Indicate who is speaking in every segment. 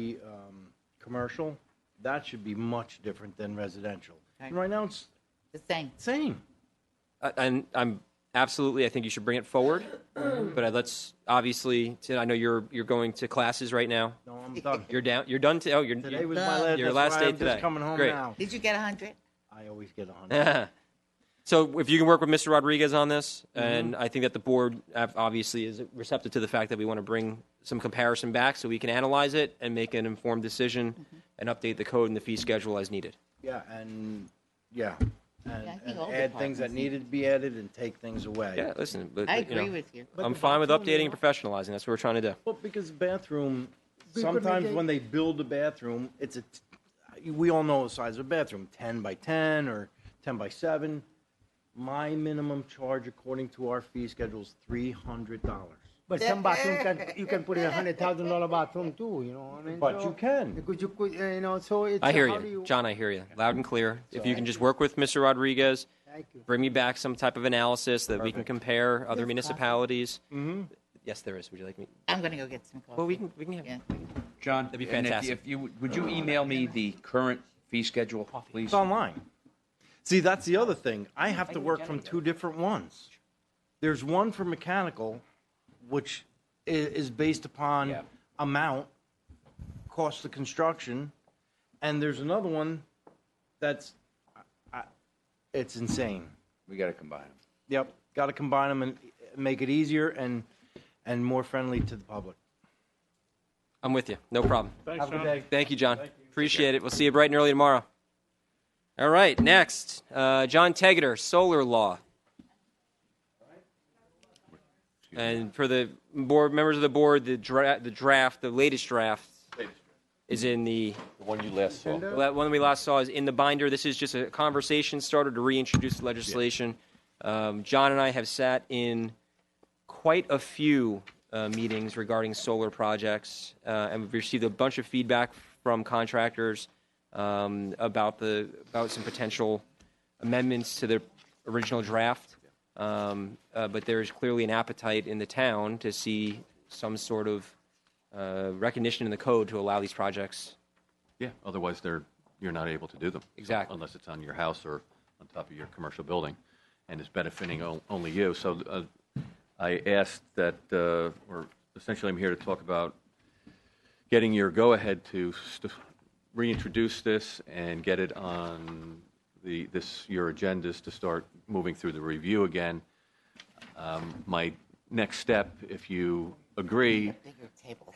Speaker 1: be um, commercial, that should be much different than residential. And
Speaker 2: Right.
Speaker 1: right now, it's
Speaker 2: The same.
Speaker 1: the same.
Speaker 3: I- and I'm absolutely. I think you should bring it forward,
Speaker 2: Mm.
Speaker 3: but let's obviously. Sid, I know you're you're going to classes right now.
Speaker 1: No, I'm done.
Speaker 3: You're down. You're done. To, oh, you're.
Speaker 1: Today was my last,
Speaker 3: Your
Speaker 1: that's
Speaker 3: last
Speaker 1: why
Speaker 3: day
Speaker 1: I'm
Speaker 3: today.
Speaker 1: just coming home
Speaker 3: Great.
Speaker 1: now.
Speaker 2: Did you get a hundred?
Speaker 1: I always get on.
Speaker 3: so if you can work with Mr. Rodriguez on this, and I think that the board uh, obviously is receptive to the fact that we want to bring some comparison back so we can analyze it and make an informed decision and update the code and the fee schedule as needed.
Speaker 1: Yeah, and, yeah, and
Speaker 2: I think
Speaker 1: and
Speaker 2: all
Speaker 1: add things that
Speaker 2: departments
Speaker 1: needed to be added and take things away.
Speaker 3: Yeah, listen. But,
Speaker 2: I
Speaker 3: you know,
Speaker 2: agree with you.
Speaker 3: I'm
Speaker 1: the
Speaker 3: fine with
Speaker 1: bathroom,
Speaker 3: updating
Speaker 1: you
Speaker 3: and professionalizing. That's what we're trying to do.
Speaker 1: Well, because the bathroom,
Speaker 4: But- but
Speaker 1: sometimes
Speaker 4: they-
Speaker 1: when they build a bathroom, it's a, t- we all know the size of a bathroom, ten by ten or ten by seven. My minimum charge according to our fee schedule is three hundred dollars.
Speaker 4: But some bathroom can, you can put in a hundred thousand dollar bathroom too, you know what I mean?
Speaker 1: But
Speaker 4: So-
Speaker 1: you can.
Speaker 4: Because you could, uh, you know, so it's.
Speaker 3: I hear
Speaker 4: how do
Speaker 3: you, John. I hear you, loud and clear. If you
Speaker 1: I-
Speaker 3: can just work with Mr. Rodriguez,
Speaker 4: Thank you.
Speaker 3: bring me back some type of analysis that we can
Speaker 1: Perfect.
Speaker 3: compare other municipalities. Yes, there is. Would you like me?
Speaker 2: I'm gonna go get some coffee.
Speaker 3: Well, we can. We can have.
Speaker 2: Yeah.
Speaker 5: John,
Speaker 3: be
Speaker 5: and if you-
Speaker 3: fantastic.
Speaker 5: If you, would you email me the current fee schedule, please?
Speaker 1: It's online. See, that's the other thing. I have to work from two different ones. There's one for mechanical, which i- is based
Speaker 5: Yeah.
Speaker 1: upon amount, cost of construction, and there's another one that's, I- I- it's insane.
Speaker 5: We got to combine them.
Speaker 1: Yep, got to combine them and make it easier and, and more friendly to the public.
Speaker 3: I'm with you. No problem.
Speaker 1: Have a good day.
Speaker 3: Thank you, John. Appreciate it. We'll see you bright and early tomorrow. All right. Next, uh, John Tegeter, Solar Law. And for the board members of the board, the, dra- the draft, the latest draft, is in the
Speaker 6: The one you last saw.
Speaker 3: Well, that one we last saw is in the binder. This is just a conversation starter to reintroduce the legislation. Um, John and I have sat in quite a few uh, meetings regarding solar projects, uh, and we've received a bunch of feedback from contractors um, about the about some potential amendments to the original draft. Um, uh, but there is clearly an appetite in the town to see some sort of uh, recognition in the code to allow these projects
Speaker 6: Yeah, otherwise they're, you're not able to do them.
Speaker 3: Exactly.
Speaker 6: Unless it's on your house or on top of your commercial building and it's benefiting o- only you. So uh, I asked that, uh, or essentially I'm here to talk about getting your go-ahead to st- reintroduce this and get it on the, this, your agendas to start moving through the review again. Um, My next step, if you agree,
Speaker 2: Bigger table.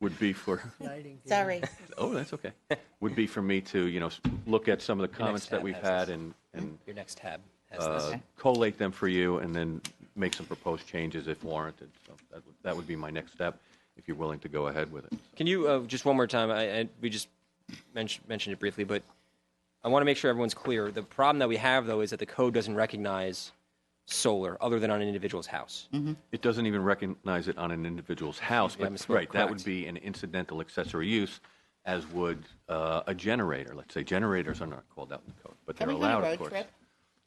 Speaker 6: would be for,
Speaker 2: Sorry.
Speaker 6: Oh, that's okay. Would be for me to, you know, s- look at some of the comments that
Speaker 3: tab
Speaker 6: we've
Speaker 3: has
Speaker 6: had
Speaker 3: this.
Speaker 6: and, and
Speaker 3: Your next tab has
Speaker 6: uh,
Speaker 3: this.
Speaker 6: collate them for you and then make some proposed changes if warranted. So that would, that would be my next step, if you're willing to go ahead with it.
Speaker 3: Can you uh, just one more time? I, I we just mentioned mentioned it briefly, but I want to make sure everyone's clear. The problem that we have though is that the code doesn't recognize solar other than on an individual's house.
Speaker 6: It doesn't even recognize it on an individual's house,
Speaker 3: Yeah, I
Speaker 6: but,
Speaker 3: misspoke,
Speaker 6: right, that
Speaker 3: correct.
Speaker 6: would be an incidental accessory use, as would uh, a generator. Let's say generators are not called out in the code, but
Speaker 2: Are
Speaker 6: they're
Speaker 2: we doing a
Speaker 6: allowed,
Speaker 2: road
Speaker 6: of course.
Speaker 2: trip?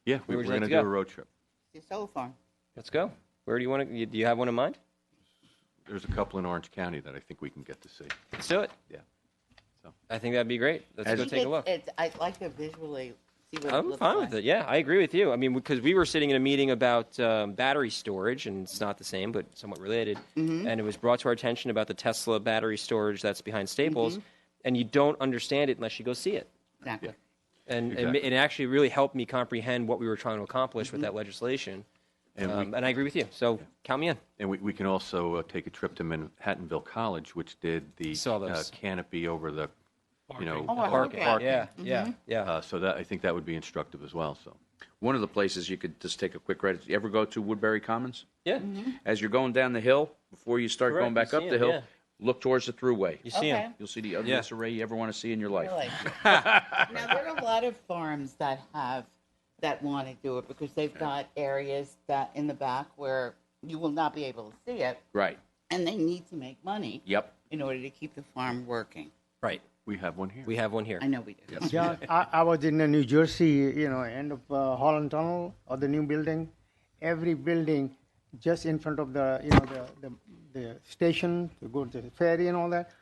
Speaker 6: Yeah, we
Speaker 3: would
Speaker 6: we're
Speaker 3: you like
Speaker 6: going
Speaker 3: to
Speaker 6: to do a
Speaker 3: go?
Speaker 6: road trip.
Speaker 2: Your solar farm.
Speaker 3: Let's go. Where do you want to? Do you have one in mind?
Speaker 6: There's a couple in Orange County that I think we can get to see.
Speaker 3: Let's do it.
Speaker 6: Yeah.
Speaker 3: I think that'd be great. Let's
Speaker 6: As-
Speaker 3: go
Speaker 2: I
Speaker 3: take
Speaker 2: think
Speaker 3: a look.
Speaker 2: it's- I'd like to visually see what it
Speaker 3: I'm
Speaker 2: looks
Speaker 3: fine with
Speaker 2: like.
Speaker 3: it. Yeah, I agree with you. I mean, because we were sitting in a meeting about um, battery storage, and it's not the same, but somewhat related. And it was brought to our attention about the Tesla battery storage that's behind Staples, and you don't understand it unless you go see it.
Speaker 2: Exactly.
Speaker 3: And it ma-
Speaker 6: Exactly.
Speaker 3: it, actually really helped me comprehend what we were trying to accomplish with that legislation.
Speaker 6: And we-
Speaker 3: um, and I agree with you. So count me in.
Speaker 6: And we, we can also uh, take a trip to Manhattanville College, which did the
Speaker 3: Saw
Speaker 6: uh,
Speaker 3: those.
Speaker 6: canopy over the, you know,
Speaker 2: Oh, I
Speaker 6: park-
Speaker 2: like that.
Speaker 3: Yeah, yeah, yeah.
Speaker 6: Uh, so that I think that would be instructive as well. So
Speaker 5: One of the places you could just take a quick ride, you ever go to Woodbury Commons?
Speaker 3: yeah.
Speaker 5: As you're going down the hill, before you start
Speaker 3: Correct,
Speaker 5: going back
Speaker 3: you
Speaker 5: up
Speaker 3: see
Speaker 5: the
Speaker 3: it,
Speaker 5: hill,
Speaker 3: yeah.
Speaker 5: look towards the thruway.
Speaker 3: You see him.
Speaker 2: Okay.
Speaker 5: You'll see the
Speaker 3: Yeah.
Speaker 5: ugliest array you ever want to see in your life.
Speaker 2: Really. Now, there are a lot of farms that have, that want to do it because they've got areas that in the back where you will not be able to see it
Speaker 5: Right,
Speaker 2: and they need to make money.
Speaker 5: yep.
Speaker 2: In order to keep the farm working.
Speaker 3: Right.
Speaker 6: we have one here.
Speaker 3: We have one here.
Speaker 2: I know we do.
Speaker 4: Yeah, I, I was in uh, New Jersey, you know, end of uh, Holland Tunnel or the new building. Every building just in front of the, you know, the, the, the station to go to the ferry and all that,